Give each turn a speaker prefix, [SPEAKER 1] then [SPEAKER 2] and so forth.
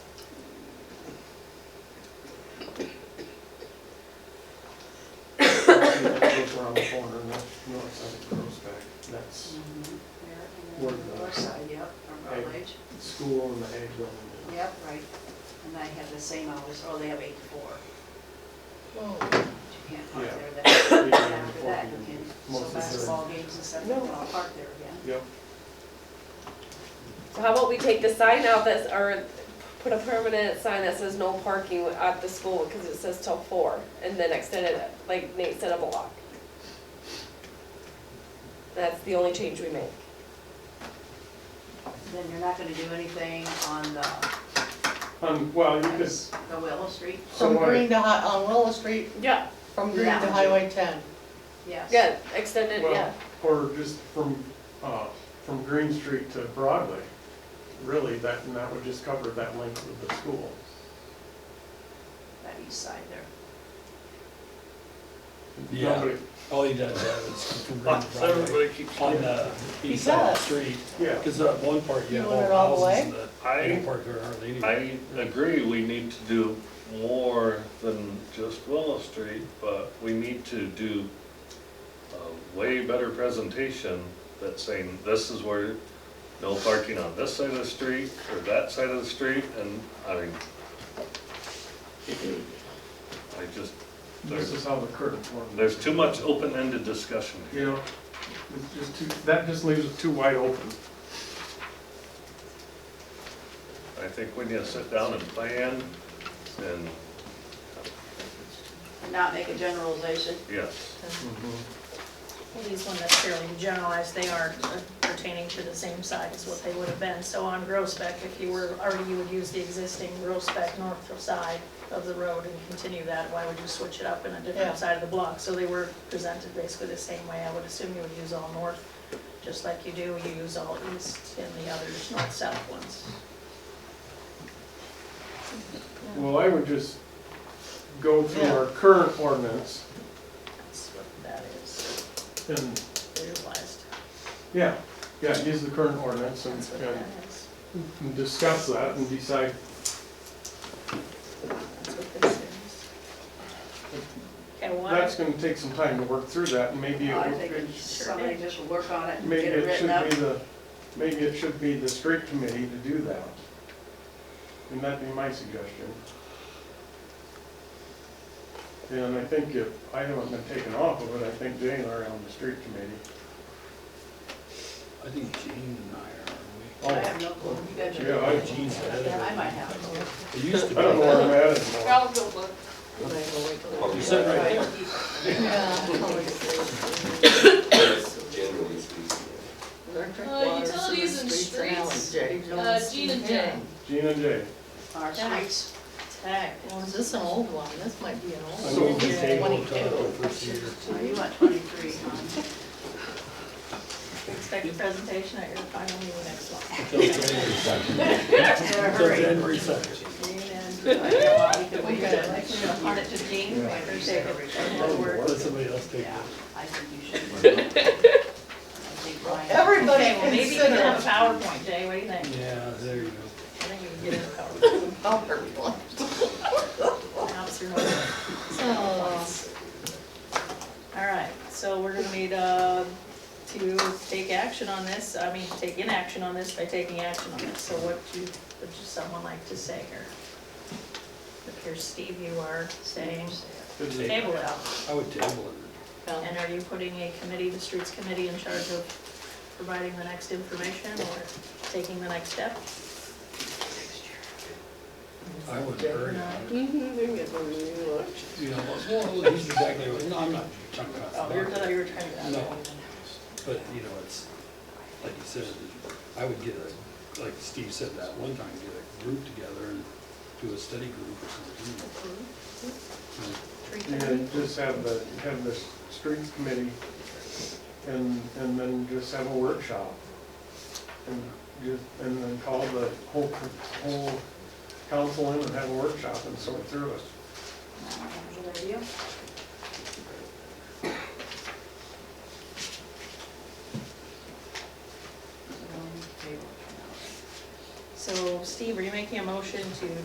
[SPEAKER 1] around the corner, and that north side curves back. And That's
[SPEAKER 2] Yeah,
[SPEAKER 1] Mm-hmm. Where
[SPEAKER 2] and then
[SPEAKER 1] the-
[SPEAKER 2] the north side, yep, from
[SPEAKER 1] Right.
[SPEAKER 2] Rutledge,
[SPEAKER 1] the school and the ag building.
[SPEAKER 2] yep, right. And I have the same hours, oh, they have eight to four, but you can't park
[SPEAKER 1] Yeah.
[SPEAKER 2] there
[SPEAKER 1] Yeah,
[SPEAKER 2] then.
[SPEAKER 1] and
[SPEAKER 2] After that, you
[SPEAKER 1] fourteen,
[SPEAKER 2] can,
[SPEAKER 1] most
[SPEAKER 2] so
[SPEAKER 1] of the-
[SPEAKER 2] basketball games and stuff, you
[SPEAKER 1] No.
[SPEAKER 2] can all park there again.
[SPEAKER 1] Yep,
[SPEAKER 3] So how about we take the sign out that's, or put a permanent sign that says no parking at the school, because it says till four, and then extend it, like Nate said, a block. That's the only change we make.
[SPEAKER 2] Then you're not gonna do anything on the,
[SPEAKER 1] um, well, you could, so
[SPEAKER 2] the Willow Street,
[SPEAKER 4] From
[SPEAKER 1] what-
[SPEAKER 4] Green to Hi, on Willow Street,
[SPEAKER 3] Yeah.
[SPEAKER 4] from Green to
[SPEAKER 2] Yeah.
[SPEAKER 4] Highway ten.
[SPEAKER 2] yes.
[SPEAKER 3] Yeah, extend it, yeah.
[SPEAKER 1] well, or just from, uh, from Green Street to Broadway. Really, that, and that would just cover that length of the school.
[SPEAKER 2] That east side there.
[SPEAKER 1] Nobody-
[SPEAKER 5] All he does is
[SPEAKER 6] Lots of- Everybody keeps
[SPEAKER 5] on
[SPEAKER 6] saying that.
[SPEAKER 5] the east side of the street,
[SPEAKER 1] Yeah,
[SPEAKER 5] because at one part you
[SPEAKER 4] You
[SPEAKER 5] have
[SPEAKER 4] want
[SPEAKER 5] all
[SPEAKER 4] it all the
[SPEAKER 5] houses that
[SPEAKER 6] I,
[SPEAKER 5] don't park there hardly anyway.
[SPEAKER 6] I agree, we need to do more than just Willow Street, but we need to do a way better presentation that's saying, this is where no parking on this side of the street or that side of the street, and I mean, I just,
[SPEAKER 1] this
[SPEAKER 6] there's,
[SPEAKER 1] is how the curtain formed.
[SPEAKER 6] there's too much open-ended discussion here.
[SPEAKER 1] You know, it's just too, that just leaves it too wide open.
[SPEAKER 6] I think we need to sit down and plan, and,
[SPEAKER 2] And not make a generalization.
[SPEAKER 6] yes, Mm-hmm.
[SPEAKER 7] Well, these ones that's fairly generalized, they are pertaining to the same side as what they would have been. So on Grosbeck, if you were, already you would use the existing Grosbeck north side of the road and continue that, why would you switch it up in a
[SPEAKER 4] Yeah.
[SPEAKER 7] different side of the block? So they were presented basically the same way. I would assume you would use all north, just like you do, you use all east and the others, north-south ones.
[SPEAKER 1] Well, I would just go through
[SPEAKER 4] Yeah.
[SPEAKER 1] our current ordinance
[SPEAKER 7] That's what that is,
[SPEAKER 1] and,
[SPEAKER 7] visualized.
[SPEAKER 1] yeah, yeah, use the current ordinance and,
[SPEAKER 7] That's what that is.
[SPEAKER 1] and discuss that and decide
[SPEAKER 7] That's what this is. Okay, why?
[SPEAKER 1] That's gonna take some time to work through that, and maybe,
[SPEAKER 2] Uh, I
[SPEAKER 1] it-
[SPEAKER 2] think somebody just will work on it and
[SPEAKER 1] maybe
[SPEAKER 2] get it
[SPEAKER 1] it should
[SPEAKER 2] written up.
[SPEAKER 1] be the, maybe it should be the street committee to do that. And that'd be my suggestion. And I think if I haven't been taken off of it, I think Jane are on the street committee.
[SPEAKER 5] I think Gene and I
[SPEAKER 2] I have no clue, you guys
[SPEAKER 1] Yeah,
[SPEAKER 2] are,
[SPEAKER 1] I,
[SPEAKER 5] are. Gene's ahead
[SPEAKER 2] I might
[SPEAKER 5] of
[SPEAKER 2] have it.
[SPEAKER 5] it. It used to
[SPEAKER 1] I
[SPEAKER 5] be.
[SPEAKER 1] don't know where I'm at anymore.
[SPEAKER 5] You said right there.
[SPEAKER 8] generally speaking.
[SPEAKER 9] Uh, utilities and streets, uh, Gene and Jay.
[SPEAKER 1] Gene and Jay.
[SPEAKER 2] Our streets.
[SPEAKER 4] Tag, well, is this an old one? This might be an old
[SPEAKER 1] So
[SPEAKER 4] one.
[SPEAKER 1] we
[SPEAKER 4] It's
[SPEAKER 1] table
[SPEAKER 5] We'll talk
[SPEAKER 4] 22.
[SPEAKER 5] first year.
[SPEAKER 2] Oh, you want twenty-three, huh?
[SPEAKER 7] Expect a presentation at your final meeting next month.
[SPEAKER 5] Until January second.
[SPEAKER 2] Better
[SPEAKER 5] Until
[SPEAKER 2] hurry.
[SPEAKER 5] January second.
[SPEAKER 4] We could-
[SPEAKER 2] Hand it to Jean, I appreciate it.
[SPEAKER 5] Let somebody else take
[SPEAKER 2] Yeah,
[SPEAKER 5] it.
[SPEAKER 2] I think you should. I think Ryan-
[SPEAKER 4] Everybody
[SPEAKER 7] Okay, well, maybe you can have a
[SPEAKER 4] consider
[SPEAKER 7] PowerPoint, Jay, what do you think?
[SPEAKER 5] Yeah, there you go.
[SPEAKER 7] I think we can get a PowerPoint,
[SPEAKER 4] bumper one.
[SPEAKER 7] announce your order.
[SPEAKER 4] So,
[SPEAKER 7] All right, so we're gonna need, uh, to take action on this, I mean, take inaction on this by taking action on it. So what do, you- would you someone like to say here? Look here, Steve, you are saying, table it out.
[SPEAKER 5] I would table
[SPEAKER 7] And are you putting a committee, the streets committee, in charge of providing the next information or taking the next step?
[SPEAKER 5] it. I would hurry.
[SPEAKER 7] No.
[SPEAKER 5] You know, well, he's exactly, what- no, I'm not talking about.
[SPEAKER 7] Oh, you're, you were trying to.
[SPEAKER 5] No. But, you know, it's, like you said, I would get a, like Steve said that one time, get a group together and do a study group or something.
[SPEAKER 1] And just have the, have the streets committee and, and then just have a workshop. And just, and then call the whole, whole council in and have a workshop and sort through it.
[SPEAKER 2] Good idea.
[SPEAKER 7] So Steve, are you making a motion to